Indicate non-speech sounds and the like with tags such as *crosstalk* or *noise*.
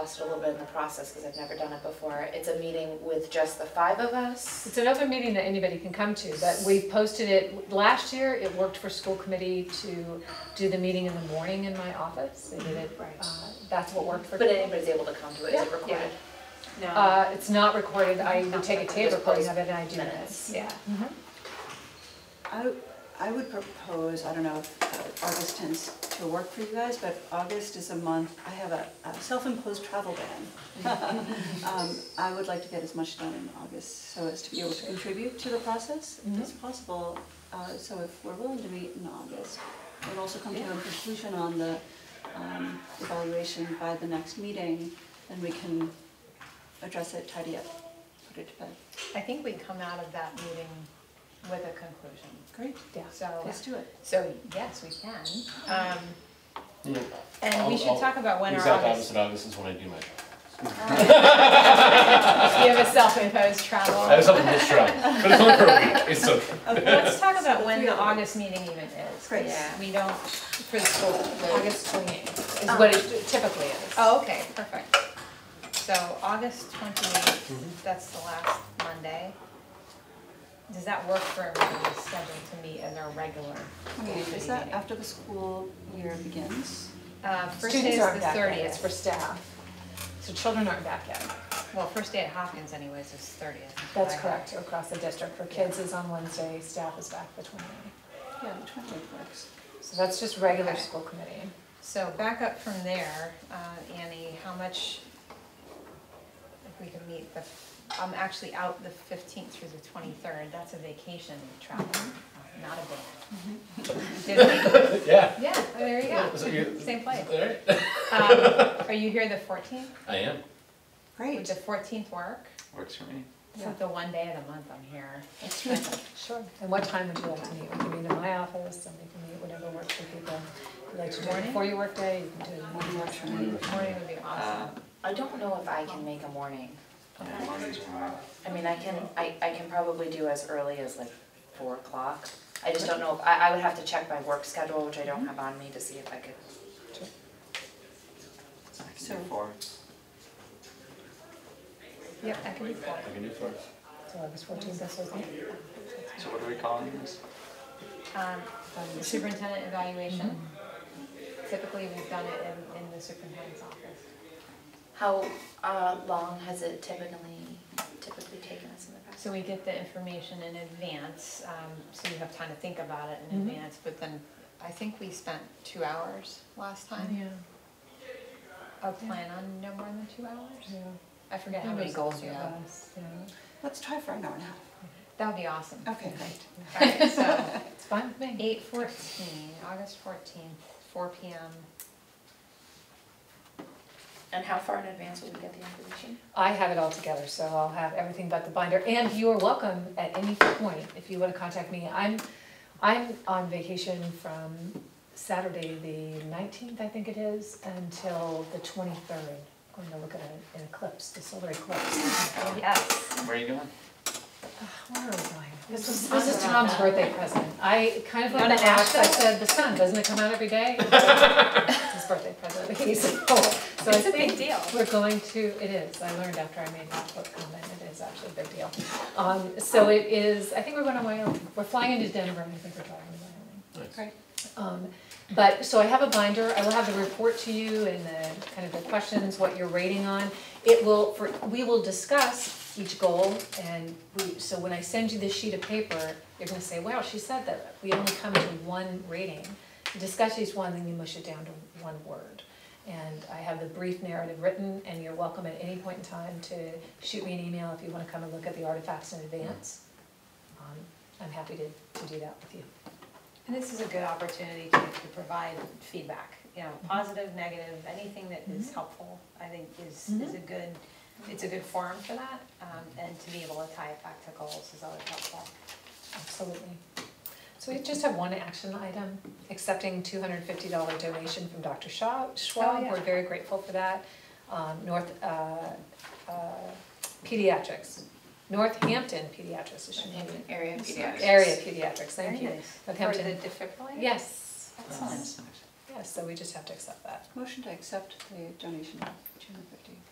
lost a little bit in the process because I've never done it before. It's a meeting with just the five of us. It's an open meeting that anybody can come to, but we posted it, last year, it worked for school committee to do the meeting in the morning in my office. They did it, Right. uh, that's what worked for. But anybody's able to come to it, is Yeah. it recorded? No, Uh, it's not recorded, I would take a tape Just recording post of it and I do minutes. this, yeah. I, I would propose, I don't know if uh, August tends to work for you guys, but August is a month, I have a a self-imposed travel ban. Um, I would like to get as much done in August so as to be able to contribute to the process as possible. Uh, So if we're willing to meet in August, and also come to a conclusion on the um, evaluation by the next meeting, then we can address it, tidy up, put it to bed. I think we come out of that meeting with a conclusion, Great. Yeah. so, Let's do it. so yes, we can. Um, Yeah. And we I'll- should I'll- talk about when our Exact August, opposite August is when I do my job. you have a self-imposed travel. I *laughs* have something to try, but it's only for a week, it's okay. Let's talk about when Three the of them. August meeting even is. Great. Yeah, We don't, for the school, August twenty-eighth Is what it typically is. Oh, okay, perfect. So August Mm-hmm. twenty-eighth, that's the last Monday. Does that work for everybody's schedule to meet in their regular school committee Is that meeting? after the school year begins? Uh, first day is Students the aren't back yet, it's thirtieth. for staff. So children aren't back yet. Well, first day at Hopkins anyways is thirtieth. That's correct, across the district. For kids is on Wednesday, staff is back the 28th. Yeah, the twentieth works. So that's just regular Okay. school committee. So back up from there, uh, Annie, how much, if we could meet the, I'm actually out the fifteenth through the twenty-third, that's a vacation travel, uh, not a bid. Did we? Yeah. Yeah, there you *laughs* So go, you- same place. All right. Um, Are you here the fourteenth? I am. Would Great. the fourteenth work? Works for me. It's like the one day of the month I'm here. Sure. And what time would you like to meet? We can meet in my office, somebody can meet whatever works for people. If you like to do it Morning? before your workday, you can do it. One works for me. Morning would be awesome. I don't know if I can make a morning. I mean, I can, I, I can probably do as early as like four o'clock. I just don't know, if- I, I would have to check my work schedule, which I don't have on me, to see if I could. So, Yep, I can be four. I can do four. So August fourteenth, that's okay. So what are we calling this? Um, the superintendent evaluation. Typically, we've done it in, in the superintendent's office. How, uh, long has it typically, typically taken us in the past? So we get the information in advance, um, so you have time to think about it in Mhm. advance, but then I think we spent two hours last time. A plan on no more than two hours? I forget how many goals you have. let's try for an hour and a half. That would be awesome. Okay, great. Alright, so Oh. *laughs* It's fine with me. eight fourteen, August fourteenth, four P M. And how far in advance will we get the information? I have it all together, so I'll have everything but the binder, and you are welcome at any point, if you wanna contact me, I'm, I'm on vacation from Saturday, the nineteenth, I think it is, until the twenty-third. I'm Going to look at an eclipse, the solar eclipse. Yes. Where are you going? Where are we going? This is, this is Tom's birthday present, I kind of You on the wanna axe, I ask him? said, the sun, doesn't it come out every *laughs* day? It's his birthday present, *laughs* he's old, so I It's a big think deal. we're going to, it is, I learned after I made that book comment, it is actually a big deal. Um, so it is, I think we're going to Wyoming, we're flying into Denver, and I think we're driving to Wyoming. Nice. Um, But, so I have a binder, I will have the report to you and the, kind of the questions, what you're rating on. It will, for, we will discuss each goal and we, so when I send you this sheet of paper, you're gonna say, wow, she said that we only come to one rating. Discuss each one, then you mush it down to one word. And I have the brief narrative written and you're welcome at any point in time to shoot me an email if you wanna come and look at the artifacts in advance. Um, I'm happy to, to do that with you. And this is a good opportunity to, to provide feedback, you Mm-hmm. know, positive, negative, anything that is helpful, I think is, Mm-hmm. is a good, it's a good forum for that. Um, and to be able to tie it back to goals is always helpful. Absolutely. So we just have one action item, accepting two hundred and fifty dollar donation from Dr. Shaw, Schwab, yeah. we're very grateful for that. Um, North, uh, uh, pediatrics, Northampton pediatrics, it should be, Area area pediatrics, thank you. Very nice. For Northampton. the defibrillator? Yes, Oh, Excellent. that's nice. Yeah, so we just have to accept that. Motion to accept the donation of two hundred fifty